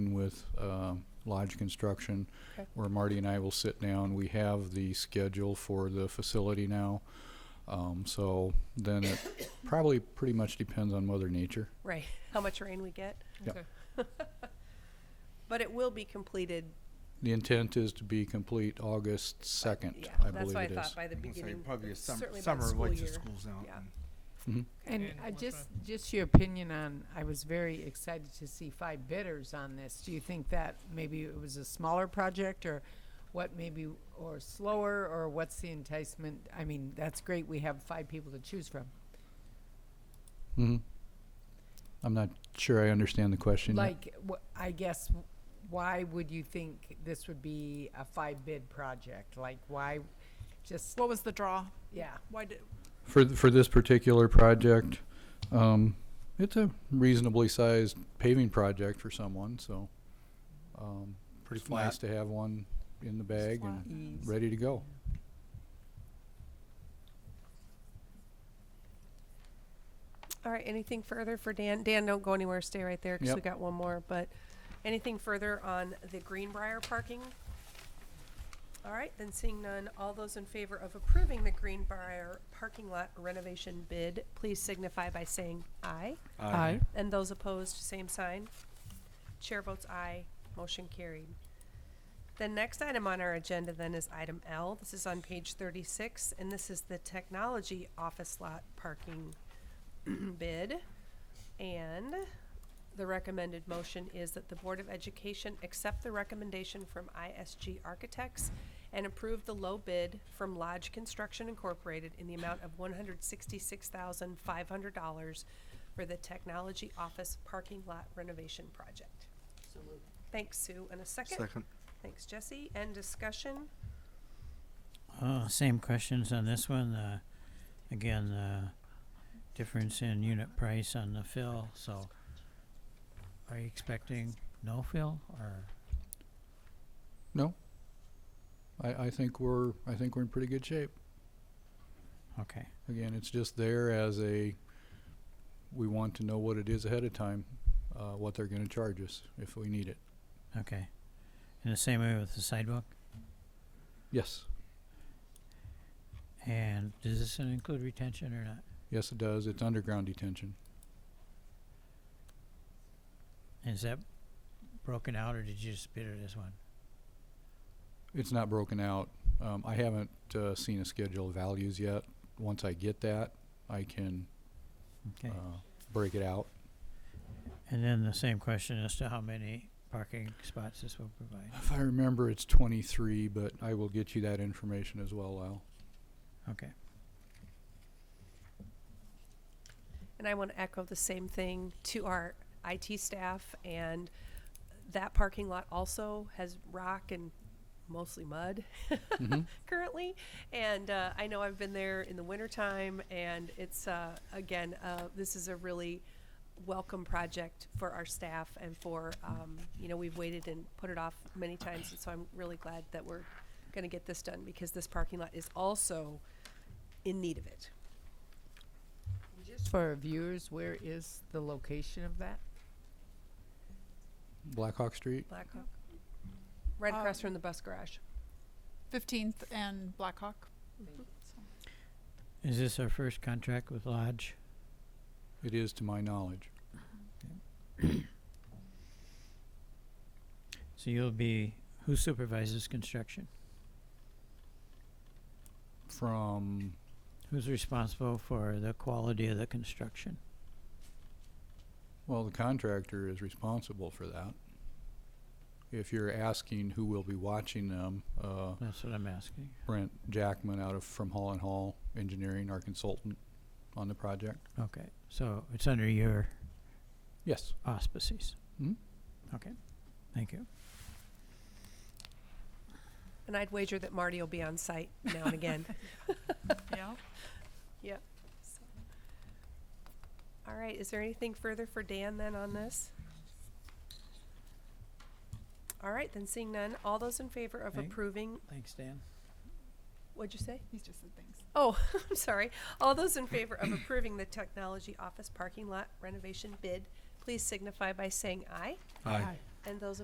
with um, Lodge Construction, Okay. where Marty and I will sit down. We have the schedule for the facility now. Um, So then it probably pretty much depends on Mother Nature. Right, how much rain we get. Yep. Okay. But it will be completed, The intent is to be complete August 2nd, Uh, yeah, I that's believe what I it is. thought, by the I'm gonna say beginning, Probably a sum- certainly by the summer, school once the year. school's out. Yeah. and- Mhm. And And I what's just, just your opinion on, I was very excited to see five bidders on this. Do you think that maybe it was a smaller project or what maybe, or slower, or what's the enticement? I mean, that's great, we have five people to choose from. Mhm. I'm not sure I understand the question. yet. Like, wh- I guess, w- why would you think this would be a five bid project? Like, why, just, What was the draw? yeah, Why did, For, th- for this particular project, um, it's a reasonably sized paving project for someone, so, um, pretty It's not- nice to have one in the bag and ease. ready to go. All right, anything further for Dan? Dan, don't go anywhere, stay right there, because we Yep. got one more, but anything further on the Greenbrier parking? All right, then seeing none, all those in favor of approving the Greenbrier parking lot renovation bid, please signify by saying aye. Aye. And those opposed, same sign. Chair votes aye, motion carried. The next item on our agenda then is item L. This is on page thirty-six, and this is the technology office lot parking bid. And the recommended motion is that the Board of Education accept the recommendation from ISG Architects and approve the low bid from Lodge Construction Incorporated in the amount of one hundred sixty-six thousand five hundred dollars for the Technology Office Parking Lot Renovation Project. Thanks, Sue. And a second? Second. Thanks, Jesse. And discussion? Uh, same questions on this one, uh, again, uh, difference in unit price on the fill, so are you expecting no fill, or, I, I think we're, I think we're in pretty good shape. okay, Again, it's just there as a, we want to know what it is ahead of time, uh, what they're gonna charge us if we need it. okay. In the same way with the sidewalk, Yes, and does this include retention or not? yes it does. It's underground detention. Is that broken out, or did you just bid it as one? It's not broken out. Um, I haven't, uh, seen a schedule of values yet. Once I get that, I can, uh, Okay, break it out. and then the same question as to how many parking spots this will provide, If I remember, it's 23, but I will get you that information as well, Lyle. okay. And I want to echo the same thing to our IT staff and that parking lot also has rock and mostly mud Mhm. currently. And uh, I know I've been there in the wintertime and it's, uh, again, uh, this is a really welcome project for our staff and for, um, you know, we've waited and put it off many times. And so I'm really glad that we're going to get this done because this parking lot is also in need of it. Just for our viewers, where is the location of that? Blackhawk Street? Blackhawk. Right across Um, from the bus garage. 15th and Blackhawk? Is this our first contract with Lodge? It is, to my knowledge. So you'll be, who supervises construction? From, Who's responsible for the quality of the construction? well, the contractor is responsible for that. If you're asking who will be watching them, uh, That's what I'm asking. Brent Jackman out of, from Hall and Hall Engineering, our consultant on the project. Okay, so it's under your Yes, auspices? Mhm. Okay, Hmm? thank you. And I'd wager that Marty will be on site now and again. Yeah. So. All right, is there anything further for Dan then on this? All right, then seeing none, all those in favor of Thank- approving, Thanks, Dan. what'd you say? He's just said things. Oh, I'm sorry. All those in favor of approving the technology office parking lot renovation bid, please signify by saying aye. Aye. And those